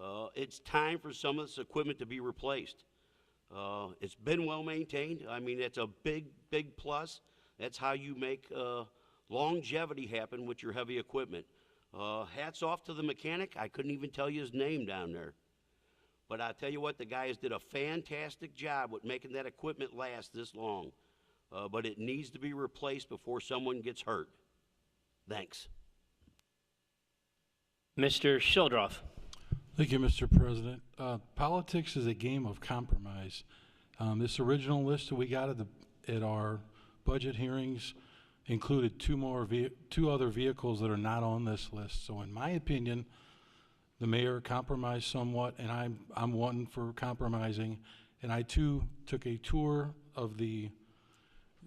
Uh, It's time for some of this equipment to be replaced. Uh, It's been well-maintained. I mean, that's a big, big plus. That's how you make uh, longevity happen with your heavy equipment. Uh, Hats off to the mechanic. I couldn't even tell you his name down there. But I tell you what, the guys did a fantastic job with making that equipment last this long. Uh, but it needs to be replaced before someone gets hurt. Thanks. Mr. Shildroff. Thank you, Mr. President. Uh, Politics is a game of compromise. Um, This original list that we got at the, at our budget hearings included two more, ve- two other vehicles that are not on this list. So in my opinion, the mayor compromised somewhat, and I'm, I'm one for compromising. And I too took a tour of the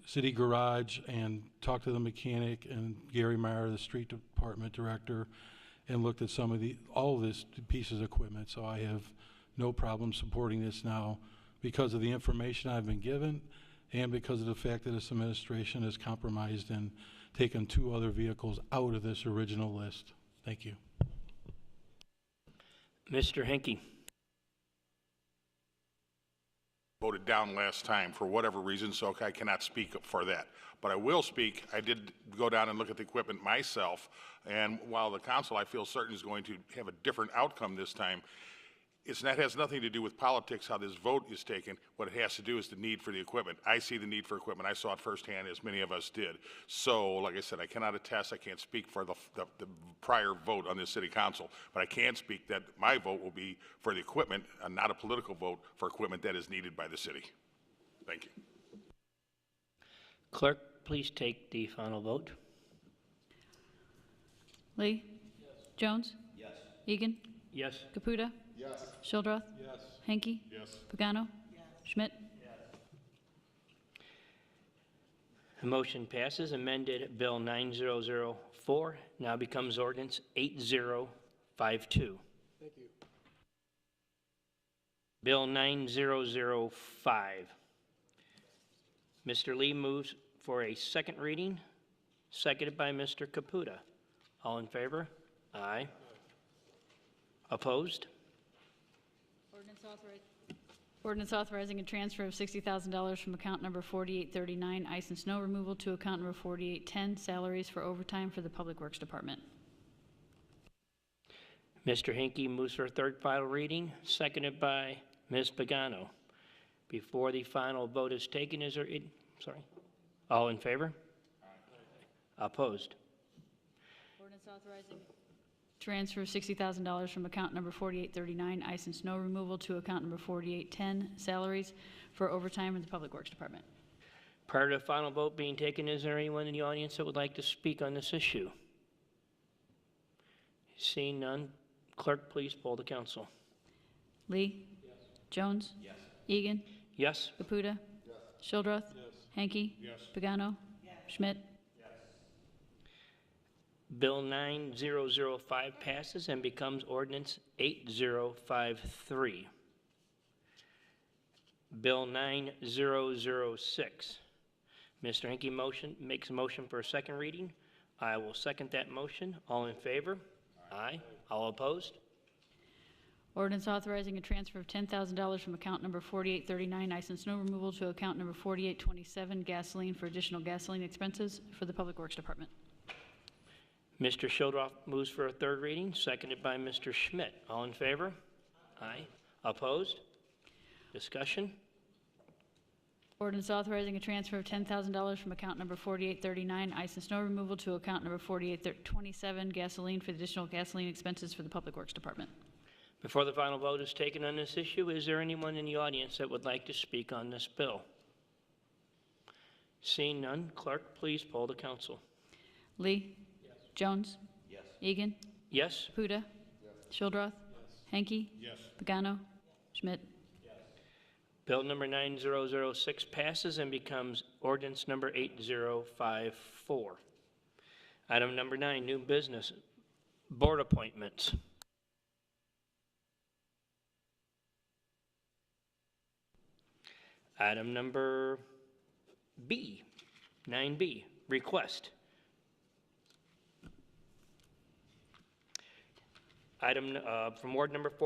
city garage and talked to the mechanic and Gary Meyer, the street department director, and looked at some of the, all of this pieces of equipment. So I have no problem supporting this now because of the information I've been given and because of the fact that this administration has compromised and taken two other vehicles out of this original list. Thank you. Mr. Henke. voted down last time for whatever reason, so I cannot speak for that. But I will speak, I did go down and look at the equipment myself, and while the council, I feel certain, is going to have a different outcome this time, it's, that has nothing to do with politics, how this vote is taken. What it has to do is the need for the equipment. I see the need for equipment. I saw it firsthand, as many of us did. So, like I said, I cannot attest, I can't speak for the, the, the prior vote on this city council, but I can speak that my vote will be for the equipment, and not a political vote, for equipment that is needed by the city. Thank you. Clerk, please take the final vote. Lee? Jones? Yes. Egan? Yes. Caputa? Yes. Shildroth? Yes. Hanky? Yes. Pagano? Schmidt? The motion passes. Amended Bill 9004 now becomes ordinance 8052. Thank you. Bill 9005. Mr. Lee moves for a second reading, seconded by Mr. Caputa. All in favor? Aye. Opposed? Ordinance authorizing a transfer of $60,000 from account number 4839, ice and snow removal, to account number 4810, salaries for overtime for the Public Works Department. Mr. Hinkie moves for a third final reading, seconded by Ms. Pagano. Before the final vote is taken, is there, it- sorry, all in favor? Opposed? Ordinance authorizing. Transfer of $60,000 from account number 4839, ice and snow removal, to account number 4810, salaries for overtime in the Public Works Department. Prior to the final vote being taken, is there anyone in the audience that would like to speak on this issue? Seeing none, clerk, please poll the council. Lee? Jones? Yes. Egan? Yes? Caputa? Yes. Shildroth? Yes. Hanky? Yes. Pagano? Schmidt? Bill 9005 passes and becomes ordinance 8053. Bill 9006. Mr. Henke motion, makes a motion for a second reading. I will second that motion. All in favor? Aye. All opposed? Ordinance authorizing a transfer of ten thousand dollars from account number forty-eight thirty-nine, ice and snow removal, to account number forty-eight twenty-seven, gasoline for additional gasoline expenses for the Public Works Department. Mr. Shildroff moves for a third reading, seconded by Mr. Schmidt. All in favor? Aye. Opposed? Discussion? Ordinance authorizing a transfer of ten thousand dollars from account number forty-eight thirty-nine, ice and snow removal, to account number forty-eight twenty-seven, gasoline for additional gasoline expenses for the Public Works Department. Before the final vote is taken on this issue, is there anyone in the audience that would like to speak on this bill? Seeing none, clerk, please poll the council. Lee? Jones? Yes. Egan? Yes? Caputa? Shildroth? Hanky? Yes. Pagano? Schmidt? Bill number 9006 passes and becomes ordinance number 8054. Item number nine, new business, board appointments. Item number B, 9B, request. Item uh, from ward number four.